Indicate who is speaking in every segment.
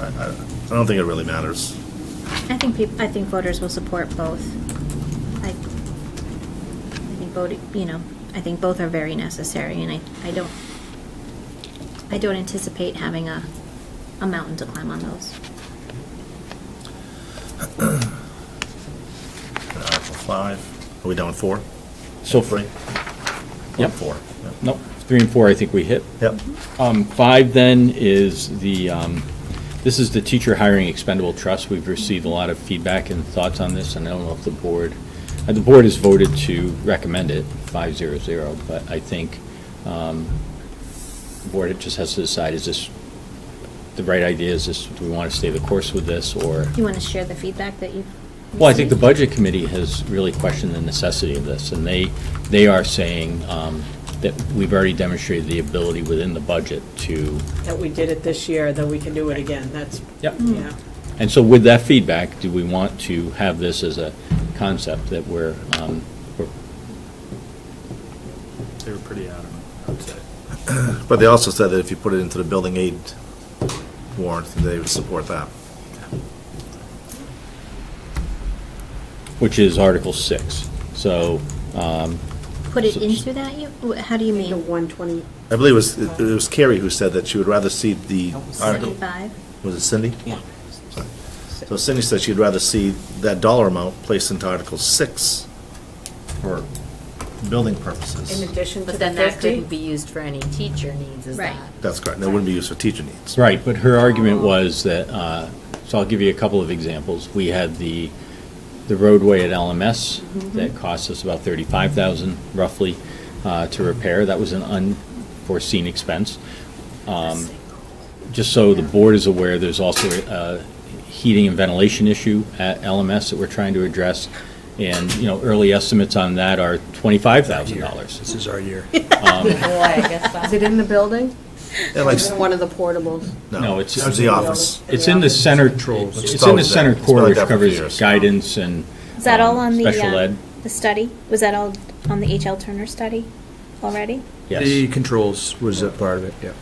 Speaker 1: I I don't think it really matters.
Speaker 2: I think peop I think voters will support both. I, I think voting, you know, I think both are very necessary, and I, I don't, I don't anticipate having a, a mountain to climb on those.
Speaker 1: And Article five, are we down four?
Speaker 3: So-
Speaker 1: Three?
Speaker 3: Yep.
Speaker 1: Four. yeah.
Speaker 3: Nope, three and four I think we hit.
Speaker 1: Yep,
Speaker 3: Um, Five then is the, um, this is the teacher hiring expendable trust. We've received a lot of feedback and thoughts on this, and I don't know if the board, uh, the board has voted to recommend it, five zero zero, but I think um, the board just has to decide, is this the right idea? Is this, do we want to stay the course with this, or?
Speaker 2: Do you want to share the feedback that you've?
Speaker 3: Well, I think the
Speaker 2: received?
Speaker 3: Budget Committee has really questioned the necessity of this, and they, they are saying um, that we've already demonstrated the ability within the budget to,
Speaker 4: That we did it this year, that we can do it again, that's,
Speaker 3: Yep.
Speaker 5: Mm.
Speaker 4: yeah.
Speaker 3: and so with that feedback, do we want to have this as a concept that we're, um, we're-
Speaker 6: They were pretty adamant, I'd say.
Speaker 1: but they also said that if you put it into the building aid warrant, they would support that.
Speaker 3: which is Article 6? So, um,
Speaker 2: Put it into that, you, wh- how do you
Speaker 4: The
Speaker 2: mean?
Speaker 4: 120,
Speaker 1: I believe it was, it was Carrie who said that she would rather see the article,
Speaker 2: Seventy-five?
Speaker 1: was it Cindy?
Speaker 4: yeah.
Speaker 1: So Cindy said she'd rather see that dollar amount placed into Article six for building
Speaker 4: In
Speaker 1: purposes.
Speaker 4: addition to
Speaker 5: But
Speaker 4: the
Speaker 5: then that
Speaker 4: 50,
Speaker 5: couldn't be used for any teacher needs, is
Speaker 2: Right.
Speaker 5: that?
Speaker 1: That's correct, and it wouldn't be used for teacher needs.
Speaker 3: Right, but her argument was that, uh, so I'll give you a couple of examples. We had the, the roadway at LMS that cost us about 35,000 roughly uh, to repair. That was an unforeseen expense. Um, Just so the board is aware, there's also a heating and ventilation issue at LMS that we're trying to address. And, you know, early estimates on that are $25,000.
Speaker 6: This is our year.
Speaker 5: Boy, I guess
Speaker 4: is it in the building?
Speaker 1: Yeah, like-
Speaker 4: It's One of the portables.
Speaker 3: No,
Speaker 1: No,
Speaker 3: it's-
Speaker 1: it's the office.
Speaker 3: It's in the center,
Speaker 6: Controls.
Speaker 3: it's in the center
Speaker 1: It's been
Speaker 3: core,
Speaker 1: like
Speaker 3: which
Speaker 1: that for
Speaker 3: covers
Speaker 1: years.
Speaker 3: guidance and
Speaker 2: Is that all
Speaker 3: um,
Speaker 2: on the,
Speaker 3: Special
Speaker 2: uh,
Speaker 3: ed,
Speaker 2: the study? Was that all on the H.L. Turner study already?
Speaker 3: yes.
Speaker 6: The controls was a part of it, yeah.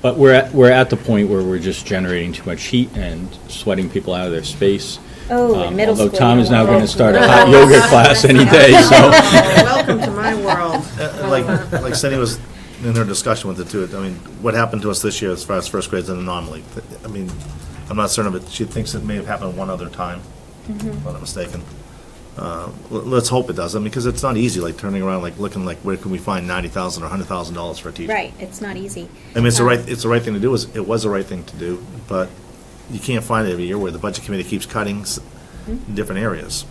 Speaker 3: But we're at, we're at the point where we're just generating too much heat and sweating people out of their space.
Speaker 2: Oh, in
Speaker 3: Um,
Speaker 2: middle school. Oh.
Speaker 3: Although Tom
Speaker 2: you
Speaker 3: is
Speaker 2: don't
Speaker 3: now
Speaker 2: want
Speaker 3: going
Speaker 2: that.
Speaker 3: to start a hot yoga class any day, so.
Speaker 4: Welcome to my world.
Speaker 1: Uh, Like, like Cindy was in her discussion with the two, I mean, what happened to us this year as far as first grade is an anomaly. I mean, I'm not certain of it, she thinks it may have happened one other time, if I'm not mistaken. Uh, l- Let's hope it doesn't, because it's not easy, like turning around, like looking like, where can we find ninety thousand or hundred thousand dollars for a teacher?
Speaker 2: Right, it's not easy.
Speaker 1: I mean, it's the
Speaker 2: Um,
Speaker 1: right, it's the right thing to do, is, it was the right thing to do, but you can't find it every year where the budget committee keeps cutting s- in different areas.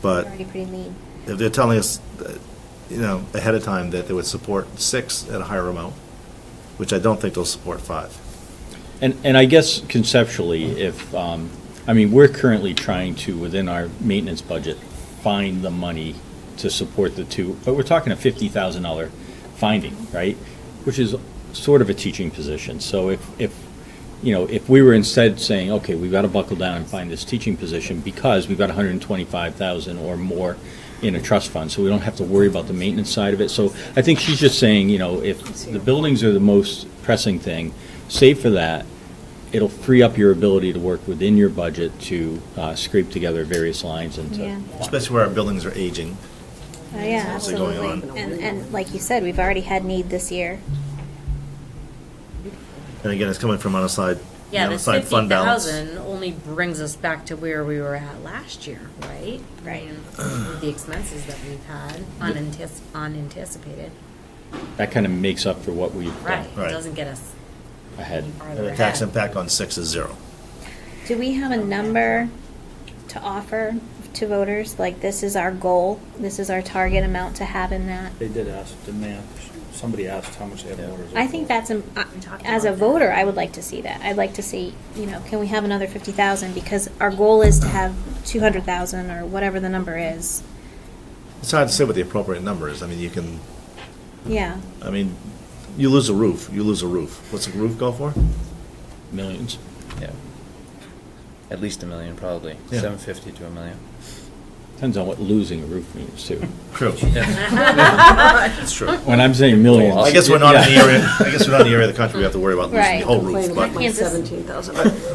Speaker 1: But
Speaker 2: Already pretty lean.
Speaker 1: if they're telling us, uh, you know, ahead of time that they would support six at a higher amount, which I don't think they'll support five.
Speaker 3: And, and I guess conceptually, if, um, I mean, we're currently trying to, within our maintenance budget, find the money to support the two, but we're talking a fifty thousand dollar finding, right? Which is sort of a teaching position. So if, if, you know, if we were instead saying, okay, we've got to buckle down and find this teaching position because we've got hundred and twenty-five thousand or more in a trust fund, so we don't have to worry about the maintenance side of it. So I think she's just saying, you know, if the buildings are the most pressing thing, save for that, it'll free up your ability to work within your budget to uh, scrape together various lines and
Speaker 2: Yeah.
Speaker 3: to.
Speaker 1: Especially where our buildings are aging.
Speaker 2: Oh, yeah,
Speaker 1: What's going
Speaker 2: absolutely.
Speaker 1: on?
Speaker 2: And, and like you said, we've already had need this year.
Speaker 1: And again, it's coming from unassigned,
Speaker 5: Yeah, this
Speaker 1: unassigned fund balance.
Speaker 5: 50,000 only brings us back to where we were at last year, right?
Speaker 2: Right.
Speaker 5: With The expenses that we've had unantis- unanticipated,
Speaker 3: That kind of makes up for what we've
Speaker 5: right?
Speaker 3: done
Speaker 5: It
Speaker 1: Right.
Speaker 5: doesn't get us
Speaker 3: ahead.
Speaker 5: any farther
Speaker 1: And the tax
Speaker 5: ahead.
Speaker 1: impact on six is zero.
Speaker 2: Do we have a number to offer to voters? Like, this is our goal, this is our target amount to have in that?
Speaker 7: They did ask, didn't they? Somebody asked how much they have in orders.
Speaker 2: I think that's, im- I-
Speaker 5: We talked
Speaker 2: as a
Speaker 5: about that.
Speaker 2: voter, I would like to see that. I'd like to see, you know, can we have another fifty thousand? Because our goal is to have two hundred thousand or whatever the number is.
Speaker 1: It's hard to say what the appropriate number is. I mean, you can,
Speaker 2: Yeah,
Speaker 1: I mean, you lose a roof, you lose a roof. What's a roof go for?
Speaker 3: Millions.
Speaker 8: Yeah. At least a million, probably.
Speaker 1: Yeah.
Speaker 8: 750 to a million.
Speaker 3: Depends on what losing a roof means, too.
Speaker 1: True. It's true.
Speaker 3: When I'm saying millions.
Speaker 1: I guess we're not in the
Speaker 3: yeah.
Speaker 1: area, I guess we're not in the area of the country we have to worry about losing
Speaker 2: Right.
Speaker 1: the whole Oh, roof,
Speaker 4: Complain
Speaker 1: but.
Speaker 4: about my
Speaker 2: Kansas.
Speaker 4: $17,000.